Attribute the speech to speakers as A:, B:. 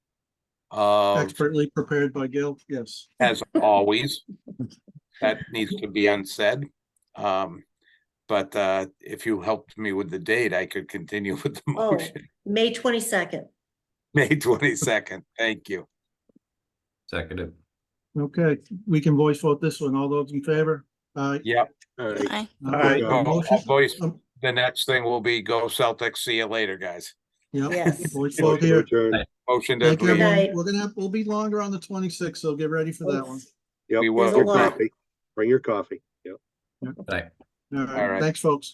A: Um,
B: Expertly prepared by Gil, yes.
A: as always. That needs to be unsaid. Um, but, uh, if you helped me with the date, I could continue with the
C: Oh.
A: motion.
C: May twenty-second.
A: May twenty-second, thank you.
D: Seconded.
B: Okay, we can voice vote this one. All those in favor? Aye.
A: Yep. All right.
E: Aye.
B: Okay,
A: Go-
B: motion-
A: Voice,
B: um,
A: Oh, the next thing will be go Celtics, see you later, guys.
B: Yeah,
C: Yes.
B: voice vote here.
A: Motion to
B: Thank you,
A: leave.
C: Night.
B: everyone. We're gonna have, we'll be longer on the twenty-sixth, so get ready for that one.
A: We will.
F: Yep, bring your
C: There's a lot.
F: coffee. Bring your coffee. Yep.
B: All
D: Aye.
B: right,
A: right.
B: thanks, folks.